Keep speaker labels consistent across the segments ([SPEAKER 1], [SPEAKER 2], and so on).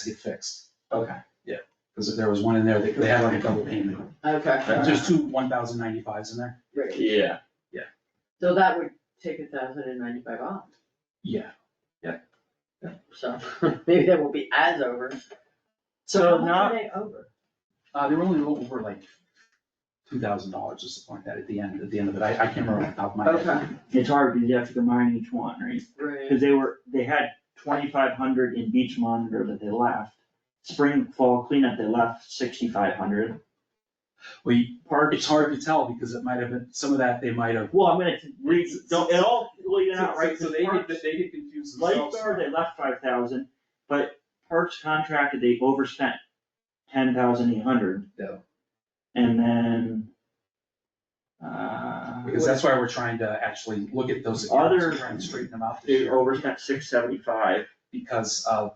[SPEAKER 1] to get fixed.
[SPEAKER 2] Okay,
[SPEAKER 1] Because if there was one in there, they, they had like a double payment.
[SPEAKER 2] okay.
[SPEAKER 1] There's two one thousand ninety-fives in there.
[SPEAKER 2] Right,
[SPEAKER 3] Yeah,
[SPEAKER 2] so that would take a thousand and ninety-five off,
[SPEAKER 1] Yeah.
[SPEAKER 2] so maybe that will be as over.
[SPEAKER 1] So
[SPEAKER 2] how
[SPEAKER 1] not,
[SPEAKER 2] much are they over?
[SPEAKER 1] uh, they were only over like two thousand dollars or something like that at the end, at the end of it. I, I can't remember off the top of my head.
[SPEAKER 2] Okay,
[SPEAKER 4] It's hard because you have to combine each one, right?
[SPEAKER 2] right,
[SPEAKER 4] Cause they were, they had twenty-five hundred in beach monitor that they left. Spring, fall cleanup, they left sixty-five hundred.
[SPEAKER 1] Well, you- it's hard to tell because it might have been, some of that they might have.
[SPEAKER 4] Well, I'm gonna read, don't, it all, well, you're not right.
[SPEAKER 1] So so
[SPEAKER 4] 'cause
[SPEAKER 1] they get,
[SPEAKER 4] parks-
[SPEAKER 1] they get confused themselves.
[SPEAKER 4] Lifeguard, they left five thousand, but parks contracted, they overspent ten thousand eight hundred.
[SPEAKER 1] Yeah.
[SPEAKER 4] And then. Uh,
[SPEAKER 1] Because that's why we're trying to actually look at those accounts and try and straighten them out this
[SPEAKER 4] they
[SPEAKER 1] year.
[SPEAKER 4] overspent six seventy-five,
[SPEAKER 1] Because, uh,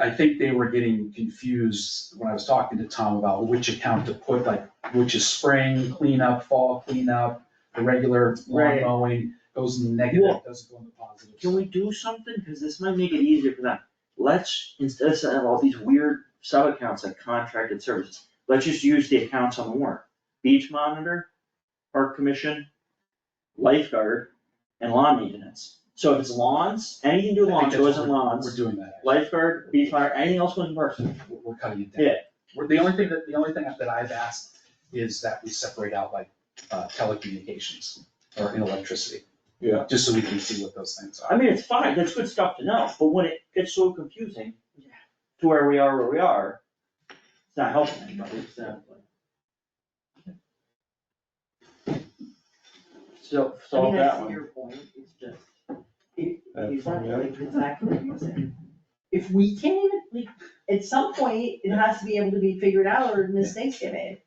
[SPEAKER 1] I think they were getting confused when I was talking to Tom about which account to put, like, which is spring cleanup, fall cleanup, the regular lawn
[SPEAKER 2] Right.
[SPEAKER 1] mowing, goes in the negative,
[SPEAKER 4] Well,
[SPEAKER 1] doesn't go in the positive.
[SPEAKER 4] can we do something, cause this might make it easier for them, let's, instead of of all these weird sub-accounts like contracted services, let's just use the accounts on the warrant. Beach monitor, park commission, lifeguard, and lawn maintenance, so if it's lawns, anything to do with
[SPEAKER 1] I think
[SPEAKER 4] lawns
[SPEAKER 1] that's
[SPEAKER 4] goes
[SPEAKER 1] what
[SPEAKER 4] in
[SPEAKER 1] we're-
[SPEAKER 4] lawns.
[SPEAKER 1] We're doing that.
[SPEAKER 4] lifeguard, beach monitor, anything else goes in parks.
[SPEAKER 1] We're, we're cutting it down.
[SPEAKER 4] Yeah.
[SPEAKER 1] We're, the only thing that, the only thing that I've asked is that we separate out like uh, telecommunications or in electricity.
[SPEAKER 3] Yeah.
[SPEAKER 1] Just so we can see what those things
[SPEAKER 4] I
[SPEAKER 1] are.
[SPEAKER 4] mean, it's fine, that's good stuff to know, but when it gets so confusing to where we are where we are, it's not helping anybody.
[SPEAKER 2] exactly.
[SPEAKER 4] So,
[SPEAKER 2] I
[SPEAKER 4] solve
[SPEAKER 2] mean, I
[SPEAKER 4] that
[SPEAKER 2] see
[SPEAKER 4] one.
[SPEAKER 2] your point, it's just, it,
[SPEAKER 4] Uh,
[SPEAKER 3] That's
[SPEAKER 2] it's
[SPEAKER 3] fine,
[SPEAKER 2] not
[SPEAKER 3] yeah.
[SPEAKER 2] like it's not confusing. If we can't even, like, at some point, it has to be able to be figured out or mistakes get made.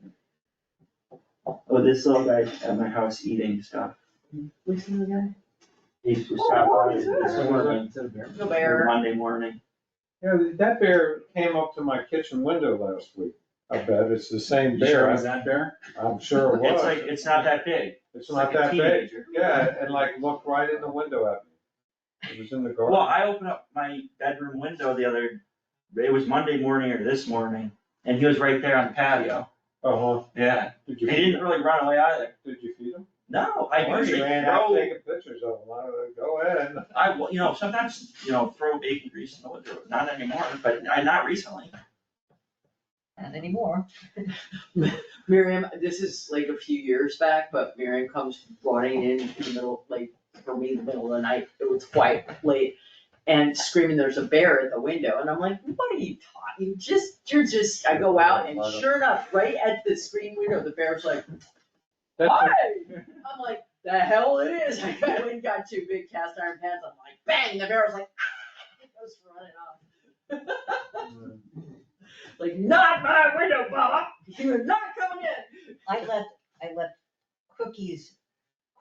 [SPEAKER 4] Oh, this little guy at my house eating stuff,
[SPEAKER 2] Which one again?
[SPEAKER 4] he used to
[SPEAKER 2] Oh,
[SPEAKER 4] stop by
[SPEAKER 2] it's
[SPEAKER 4] this
[SPEAKER 2] her.
[SPEAKER 4] morning,
[SPEAKER 2] The bear.
[SPEAKER 4] Monday morning.
[SPEAKER 3] yeah, that bear came up to my kitchen window last week. I bet it's the same
[SPEAKER 1] You sure it
[SPEAKER 3] bear,
[SPEAKER 1] was that bear?
[SPEAKER 3] I'm sure it
[SPEAKER 4] It's like,
[SPEAKER 3] was.
[SPEAKER 4] it's not that big,
[SPEAKER 3] It's
[SPEAKER 4] it's like
[SPEAKER 3] not
[SPEAKER 4] a
[SPEAKER 3] that big,
[SPEAKER 4] teenager.
[SPEAKER 3] yeah, and like looked right in the window at me. It was in the
[SPEAKER 4] Well,
[SPEAKER 3] garden.
[SPEAKER 4] I opened up my bedroom window the other, it was Monday morning or this morning, and he was right there on the patio,
[SPEAKER 3] Uh-huh,
[SPEAKER 4] yeah,
[SPEAKER 3] did
[SPEAKER 4] he
[SPEAKER 3] you, feed-
[SPEAKER 4] didn't really run away either.
[SPEAKER 3] did you feed him?
[SPEAKER 4] No,
[SPEAKER 3] Oh,
[SPEAKER 4] I
[SPEAKER 3] you
[SPEAKER 4] usually
[SPEAKER 3] ran out
[SPEAKER 4] throw,
[SPEAKER 3] Taking pictures of him, I was like, go ahead.
[SPEAKER 4] I, will- you know, sometimes, you know, throw bacon grease in the window, not anymore, but I, not recently.
[SPEAKER 5] Not anymore.
[SPEAKER 2] Miriam, this is like a few years back, but Miriam comes running in in the middle, like, for me, the middle of the night, it was quite late. And screaming, there's a bear at the window, and I'm like, what are you talking, just, you're just, I go out and sure enough, right at the screen window, the bear's like,
[SPEAKER 3] That's-
[SPEAKER 2] hi! I'm like, the hell it is, I went and got two big cast iron pans, I'm like, bang, the bear was like, ah, it goes running off.
[SPEAKER 3] Mm.
[SPEAKER 2] Like, not my window, Bubba, you're not coming in.
[SPEAKER 5] I left, I left cookies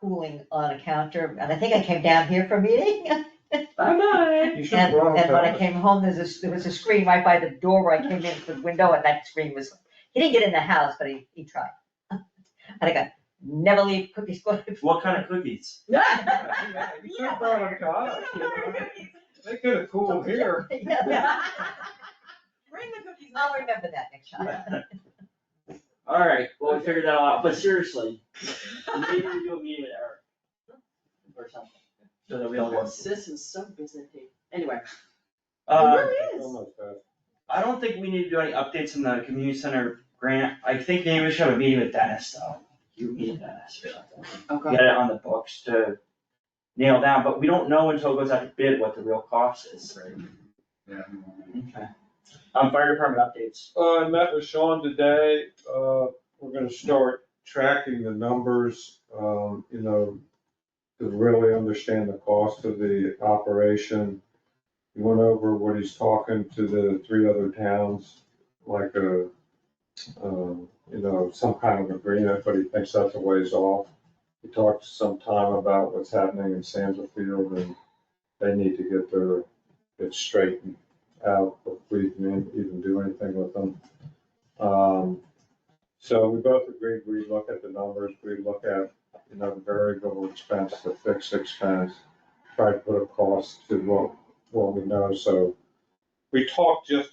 [SPEAKER 5] cooling on a counter, and I think I came down here for a meeting. And,
[SPEAKER 2] Bye-bye.
[SPEAKER 3] You should have
[SPEAKER 5] and
[SPEAKER 3] brought him
[SPEAKER 5] when I
[SPEAKER 3] back.
[SPEAKER 5] came home, there's this, there was a screen right by the door where I came in the window, and that screen was, he didn't get in the house, but he, he tried. And I got, never leave cookies going.
[SPEAKER 4] What kind of cookies?
[SPEAKER 3] You should have brought him to us, you know? They could have cooled here.
[SPEAKER 5] Yeah.
[SPEAKER 2] Bring the cookies.
[SPEAKER 5] I'll remember that next time.
[SPEAKER 4] Alright, well, we figured that out, but seriously, maybe we do a meeting with Eric. Or something, so that we all
[SPEAKER 2] Oh,
[SPEAKER 4] get.
[SPEAKER 2] Sis is so byzantine. Anyway, it
[SPEAKER 4] Uh,
[SPEAKER 2] really is.
[SPEAKER 3] Almost had
[SPEAKER 4] I don't think we need to do any updates in the community center grant, I think maybe we should have a meeting with Dennis though. You meet with Dennis or something.
[SPEAKER 2] Okay.
[SPEAKER 4] get it on the books to nail down, but we don't know until it goes out to bid what the real cost is.
[SPEAKER 1] Yeah.
[SPEAKER 4] Okay. Um, fire department updates.
[SPEAKER 3] Uh, I met with Sean today, uh, we're gonna start tracking the numbers, um, you know, to really understand the cost of the operation. He went over what he's talking to the three other towns, like a, um, you know, some kind of agreement, but he thinks that's a ways off. He talked some time about what's happening in Sandersfield and they need to get their, it straightened out before we can even do anything with them. Um, so we both agreed, we look at the numbers, we look at, you know, the variable expense, the fixed expense, try to put a cost to what, what we know, so we talked just